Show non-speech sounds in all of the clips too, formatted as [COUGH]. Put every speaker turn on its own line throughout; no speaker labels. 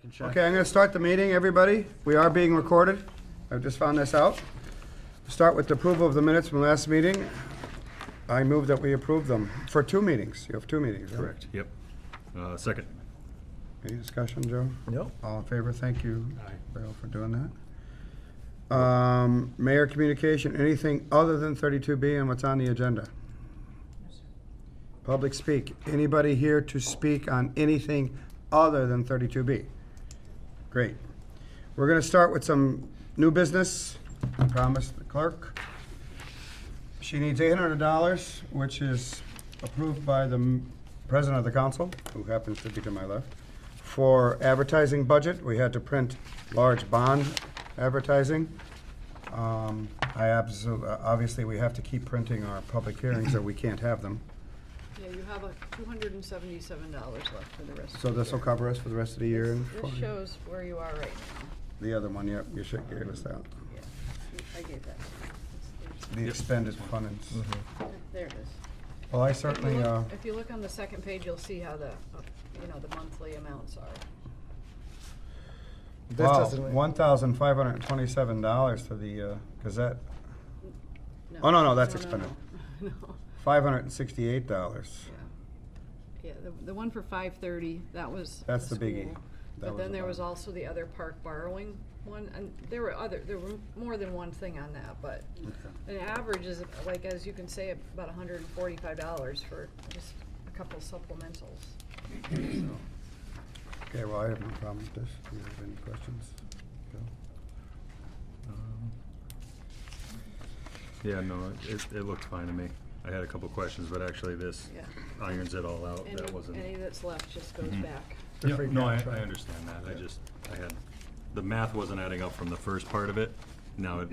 can check.
Okay, I'm going to start the meeting, everybody. We are being recorded. I've just found this out. Start with the approval of the minutes from last meeting. I move that we approve them for two meetings. You have two meetings, correct?
Yep. Uh, Second.
Any discussion, Joe?
No.
All in favor? Thank you, Bill, for doing that. Um, Mayor communication, anything other than 32B and what's on the agenda? Public speak. Anybody here to speak on anything other than 32B? Great. We're going to start with some new business. I promised the clerk. She needs $800, which is approved by the m- president of the council, who happens to be to my left, for advertising budget. We had to print large bond advertising. Um, I absolutely, obviously, we have to keep printing our public hearings, or we can't have them.
Yeah, you have two hundred and seventy-seven dollars left for the rest of the
So this will
year.
cover us for the rest of the year and
This shows where you are right
the other one, yep, you should give us that.
now, yeah. I gave that. It's-
The expended funds.
it's- There it is.
Well, I
If you
certainly, uh,
look- If you look on the second page, you'll see how the, uh, you know, the monthly amounts are.
This
uh, wow,
doesn't-
$1,527 to the uh, Gazette. Oh, no, no, that's expended.
[LAUGHS] No,
$568.
yeah. Yeah, the, the one for five thirty, that was.
That's the biggie.
school.
That
But
was
then
the
there was
bond.
also the other park borrowing one, and there were other, there were more than one thing on that, but an average is, like, as you can say, about hundred and forty-five dollars for just a couple supplementals.
Okay, well, I have no problem with this. Do you have any questions? Bill?
Um, Yeah, no, it, it looked fine to me. I had a couple questions, but actually this
Yeah.
irons it all out.
Any,
That wasn't.
any that's left just goes
Mhm.
back.
The
Yeah,
free
No, I,
cash,
I
right.
understand that. I
Yeah.
just, I had, the math wasn't adding up from the first part of it. Now it.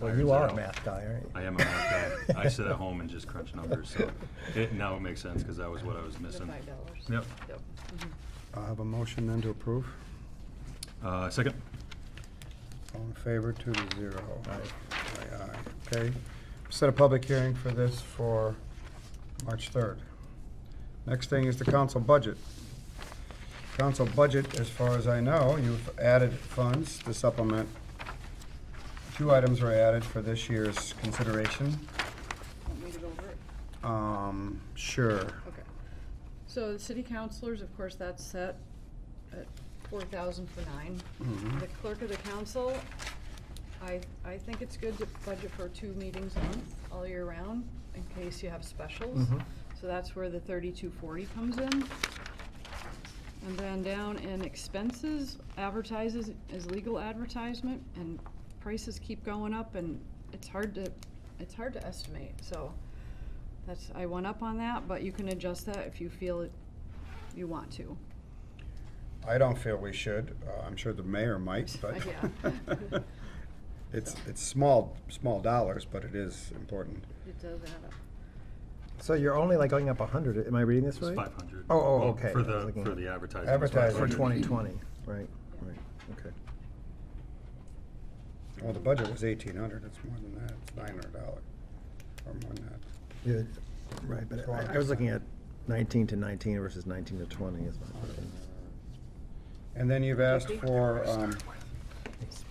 Well,
irons
you
it
are a
out.
math guy, aren't you?
I am a math
[LAUGHS]
guy. I sit at home and just crunch numbers, so it, now it makes sense because that was what I was
The
missing.
five dollars.
Yep.
Yep.
Mm-hmm. I'll have a motion then to approve.
Uh, Second.
All in favor, two to zero. Aye. Aye, okay. Set a public hearing for this for March 3rd. Next thing is the council budget. Council budget, as far as I know, you've added funds to supplement. Two items were added for this year's consideration.
Want me to go over it?
Um, sure.
Okay. So the city councilors, of course, that's set at four thousand for nine.
Mhm.
The clerk of the council, I, I think it's good to budget for two meetings a month, all year round, in case you have specials.
Mhm.
So that's where the thirty-two forty comes in. And then down in expenses, advertises is legal advertisement, and prices keep going up, and it's hard to, it's hard to estimate, so that's, I went up on that, but you can adjust that if you feel it, you want to.
I don't feel we should. Uh, I'm sure the mayor might, but.
[LAUGHS] Yeah.
[LAUGHS] It's, it's small, small dollars, but it is important.
It does add up.
So you're only like going up a hundred, am I reading this
It was
right?
five hundred.
Oh, oh, okay.
For
I was
the,
looking
for
at-
the advertising. it's
Advertising.
For
500.
twenty twenty, right,
Yeah.
right, okay.
Well, the budget was eighteen hundred, it's more than that, it's nine hundred dollars, or more than that.
Yeah, right, but I I was looking at nineteen to nineteen versus nineteen to twenty is my question.
And then you've asked
Fifty?
for, um,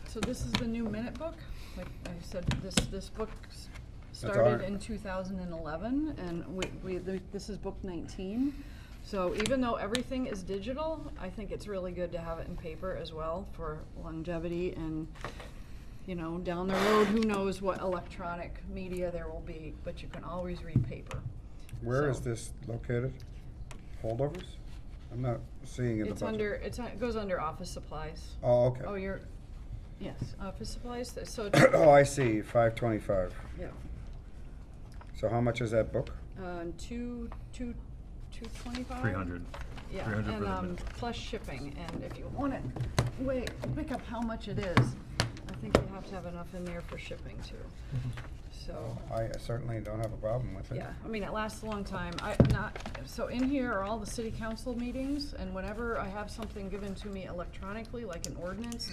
So this is the new minute book. Like I said, this, this book s-
That's
started
our-
in 2011, and we, we, th- this is book 19. So even though everything is digital, I think it's really good to have it in paper as well for longevity and, you know, down the road, who knows what electronic media there will be, but you can always read paper.
where is
So-
this located? Holdovers? I'm not seeing in the budget.
It's under, it's, on- it goes under office supplies.
Oh, okay.
Oh, you're, yes, office supplies, th- so,
[COUGHS] Oh, I see, five twenty-five.
yeah.
So how much is that book?
Um, two, two, two twenty-five?
Three hundred.
Yeah,
300 for
and,
the
um,
minute.
plus shipping, and if you want it, wait, pick up how much it is. I think you have to have enough in there for shipping too.
Mm-hmm.
So,
I certainly don't have a problem with it.
yeah, I mean, it lasts a long time. I, not, so in here are all the city council meetings, and whenever I have something given to me electronically, like an ordinance,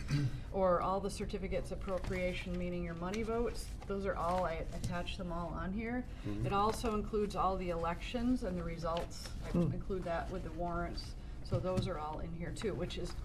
or all the certificates appropriation, meaning your money votes, those are all, I attach them all on here. It also includes all the elections and the results. I include that with the warrants, so those are all in here too, which is